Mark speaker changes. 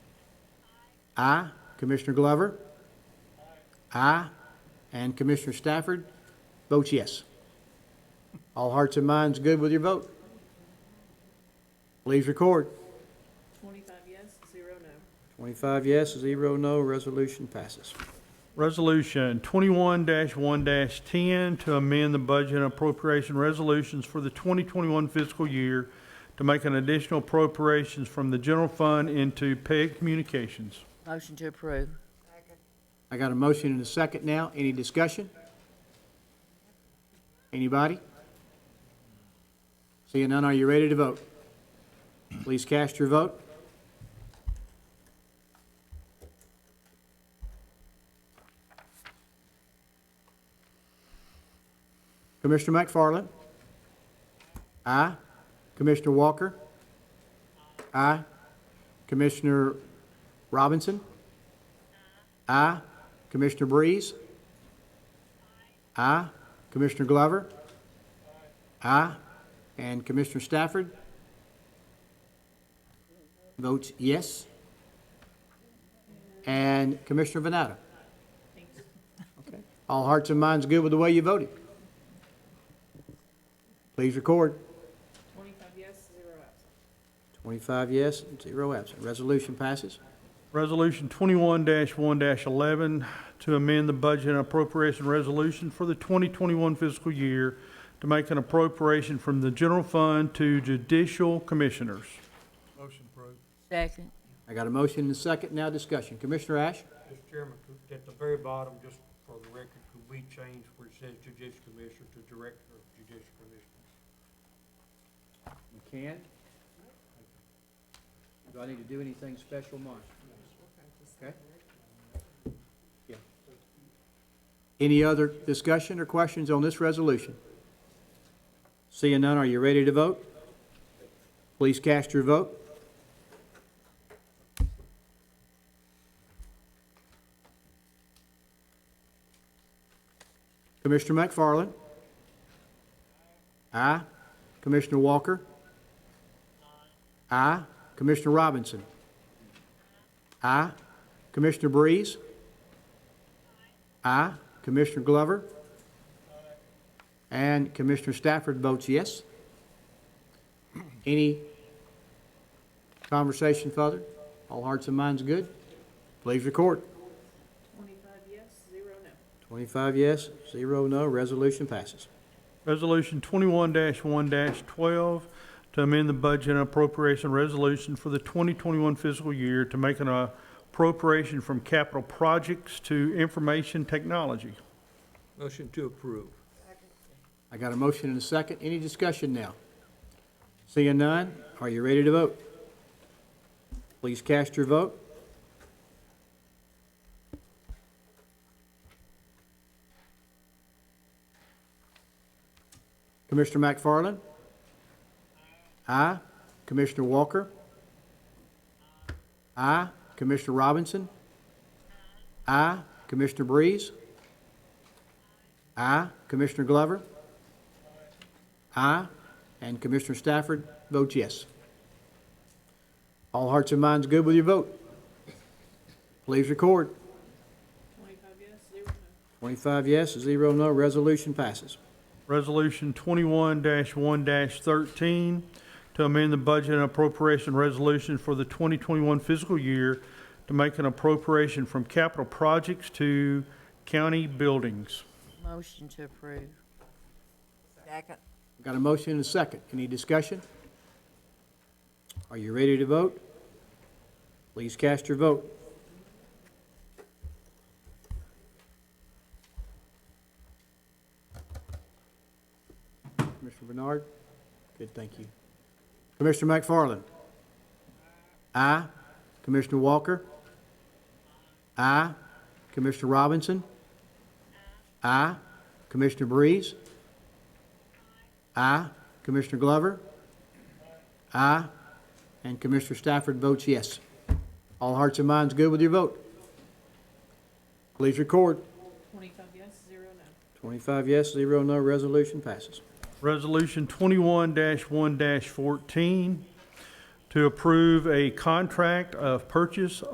Speaker 1: Aye. Commissioner Glover? Aye. And Commissioner Stafford votes yes. All hearts and minds good with your vote? Please record.
Speaker 2: Twenty-five yes, zero no.
Speaker 1: Twenty-five yes, zero no, resolution passes.
Speaker 3: Resolution twenty-one one ten to amend the budget and appropriation resolutions for the twenty twenty-one fiscal year to make an additional appropriations from the general fund into PEG Communications.
Speaker 4: Motion to approve.
Speaker 1: I got a motion and a second now. Any discussion? Anybody? Seeing none, are you ready to vote? Please cast your vote. Commissioner McFarland? Aye. Commissioner Walker? Aye. Commissioner Robinson? Aye. Commissioner Breeze? Aye. Commissioner Glover? Aye. And Commissioner Stafford? Votes yes. And Commissioner Vanatta? Okay. All hearts and minds good with the way you voted? Please record.
Speaker 2: Twenty-five yes, zero absent.
Speaker 1: 25 yes, zero absent. Resolution passes.
Speaker 3: Resolution twenty-one one eleven to amend the budget and appropriation resolution for the twenty twenty-one fiscal year to make an appropriation from the general fund to judicial commissioners.
Speaker 5: Motion approved.
Speaker 4: Second.
Speaker 1: I got a motion and a second, now discussion. Commissioner Ash?
Speaker 5: Mr. Chairman, could- at the very bottom, just for the record, could we change where it says judicial commissioner to director of judicial commissioners?
Speaker 1: You can. Do I need to do anything special, Mark? Okay? Yeah. Any other discussion or questions on this resolution? Seeing none, are you ready to vote? Please cast your vote. Commissioner McFarland? Aye. Commissioner Walker? Aye. Commissioner Robinson? Aye. Commissioner Breeze? Aye. Commissioner Glover? And Commissioner Stafford votes yes. Any conversation further? All hearts and minds good? Please record.
Speaker 2: Twenty-five yes, zero no.
Speaker 1: 25 yes, 0 no, resolution passes.
Speaker 3: Resolution twenty-one one twelve to amend the budget and appropriation resolution for the twenty twenty-one fiscal year to make an uh, appropriation from capital projects to information technology.
Speaker 5: Motion to approve.
Speaker 1: I got a motion and a second. Any discussion now? Seeing none, are you ready to vote? Please cast your vote. Commissioner McFarland? Aye. Commissioner Walker? Aye. Commissioner Robinson? Aye. Commissioner Breeze? Aye. Commissioner Glover? Aye. And Commissioner Stafford votes yes. All hearts and minds good with your vote? Please record.
Speaker 2: Twenty-five yes, zero no.
Speaker 1: 25 yes, 0 no, resolution passes.
Speaker 3: Resolution twenty-one one thirteen to amend the budget and appropriation resolution for the twenty twenty-one fiscal year to make an appropriation from capital projects to county buildings.
Speaker 4: Motion to approve. Second.
Speaker 1: Got a motion and a second. Any discussion? Are you ready to vote? Please cast your vote. Commissioner Bernard? Good, thank you. Commissioner McFarland? Aye. Commissioner Walker? Aye. Commissioner Robinson? Aye. Commissioner Breeze? Aye. Commissioner Glover? Aye. And Commissioner Stafford votes yes. All hearts and minds good with your vote? Please record.
Speaker 2: Twenty-five yes, zero no.
Speaker 1: 25 yes, 0 no, resolution passes.
Speaker 3: Resolution twenty-one one fourteen to approve a contract of purchase